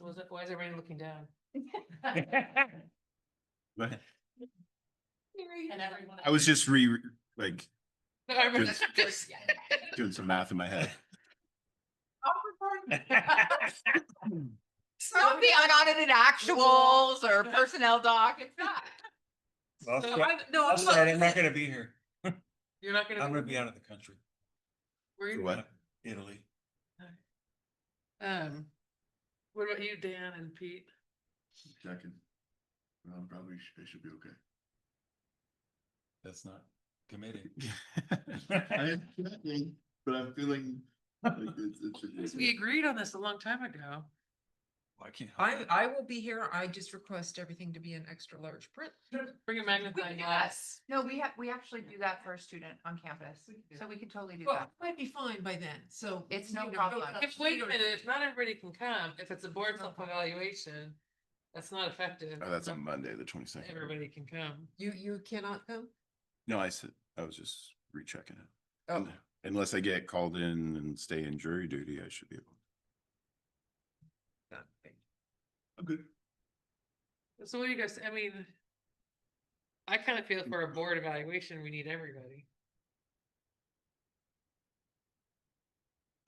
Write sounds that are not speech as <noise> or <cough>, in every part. was it, why is everybody looking down? <laughs> But And everyone. <laughs> I was just re, like, Everyone- <laughs> just- doing some math in my head. It's not the unaudited actuals <laughs> or personnel doc, it's not. Well, So yeah. I'm- No, I'm I'm sorry, I'm not not. gonna be here. You're not I'm gonna. gonna be out of the country, were you- What? Italy. Um, what about you, Dan and Pete? Second. Well, probably, I should be That's not committing. okay. <laughs> But I'm feeling. Because we agreed on this a long time ago. I can't. I, I will be here. I just request everything to be in extra large print. Bring a magnifying glass. Yes. No, we have, we actually do that for a student on campus, so we could totally do that. Well, might be fine by then, so. It's you no know, go problem. up If, to wait a your- minute, if not everybody can come, if it's a board self-evaluation, that's not effective. Oh, that's Not on Monday, the twenty second. Everybody can come. You, you cannot come? No, I said, I was just rechecking it. Oh, Unless I get called in and stay in jury duty, I should be able. God, thank I'm good. So what do you guys, I mean, I kind of feel for a board evaluation, we need everybody.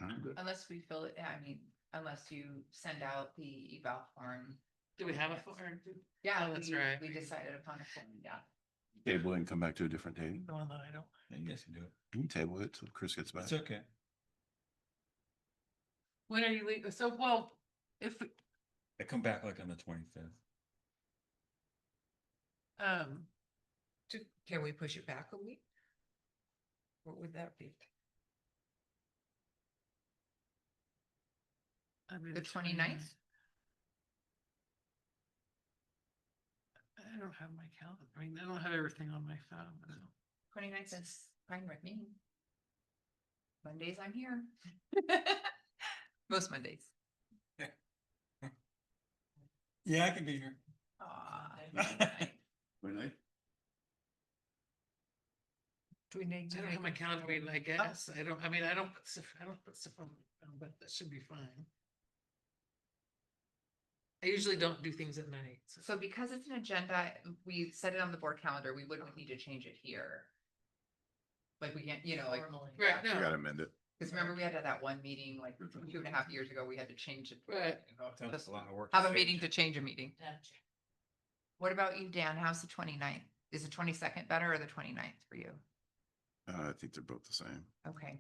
I'm good. Unless we fill it, I mean, unless you send out the eval form. Do we have a form? Yeah, Oh, that's we- right. We decided upon a form, yeah. Table it and come back to a different day. No, no, I don't. I guess you do it. Can you table it till Chris gets back? It's okay. When are you leaving? So, well, if, we- I come back like on the twenty fifth. um, you. Do- Can we push it back a week? What would that be? I mean. The 29th? I don't have my calendar. I mean, I don't have everything on my phone. I don't- Twenty ninth is fine with me. Mondays I'm here. <laughs> Most Mondays. Yeah, I can be here. Aw. Really? Do we need I to don't have my make a- calendar, I mean, I guess. I don't, I mean, I don't put stuff, I don't put stuff on, my phone, but that should be fine. I usually don't do things at night. So because it's an agenda, we set it on the board calendar, we wouldn't need to change it here. Like we can't, you know, like, Right, I no, gotta amend it. because remember we had that- that one meeting like That's right. two and a half years ago, we had to change it. Right. That's a lot of work. Have a meeting to change a meeting. What about you, Dan? How's the 29th? Is the twenty second better or the 29th for you? Uh, I think they're both the same. Okay.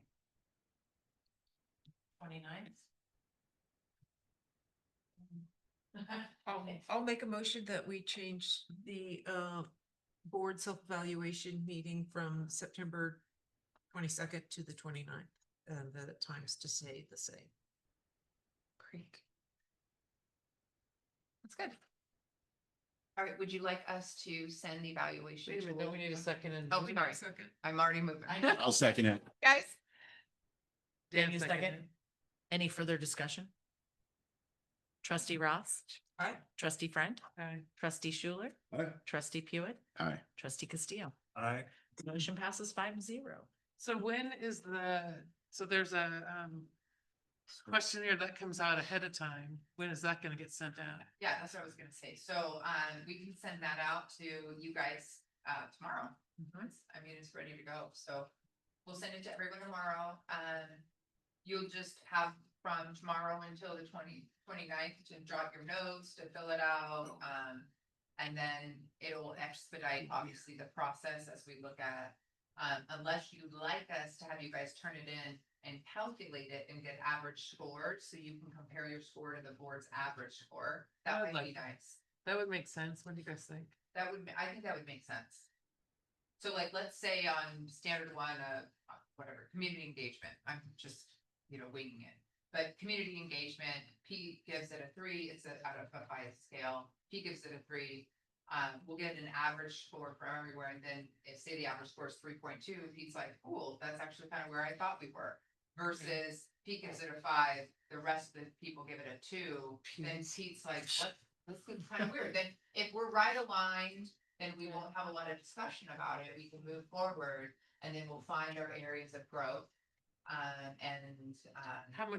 Twenty ninth. Oh, I'll, I'll make a motion that we change the, uh, board self-evaluation meeting from September twenty-second to the 29th, and the times to stay the same. Great. That's good. All right, would you like us to send the evaluation? Wait a minute, no, tool? we need a second and. Oh, sorry, Second. I'm already moving. I'll second it. <laughs> Guys, Dan Give me a seconded. second. Any further discussion? Trustee Ross, Aye. trustee Friend, Aye. trustee Schuler, Aye. trustee Pewitt, Aye. trustee Castillo. I, Motion passes five zero. So when is the, so there's a, um, questionnaire that comes out ahead of time. When is that gonna get sent out? yeah, that's what I was gonna say. So, um, we can send that out to you guys, uh, tomorrow. Mm-hmm. Once, I mean, it's ready to go, so we'll send it to everyone tomorrow. Um, you'll just have from tomorrow until the 20 29th to drop your notes, to fill it out, um. And then it'll expedite, obviously, the process as we look at, um, unless you'd like us to have you guys turn it in and calculate it and get average scores, so you can compare your score to the board's average score. I That would would be like that. nice. That would make sense. What do you guys think? That would, ma- I think that would make sense. So like, let's say on standard one of uh, whatever, community engagement, I'm just, you know, winging it. But community engagement, P gives it a three, it's a, out of a five scale, P gives it a three. Um, we'll get an average score from everywhere, and then if say the average score is three point two, P's like, cool, that's actually kind of where I thought we were. Versus P gives it a five, the rest of the people give it a two, then Pete's like, what, this is kind of weird, then if we're right aligned, then we won't have a lot of discussion about it, we can move forward, and then we'll find our areas of growth. Um, and, um. How much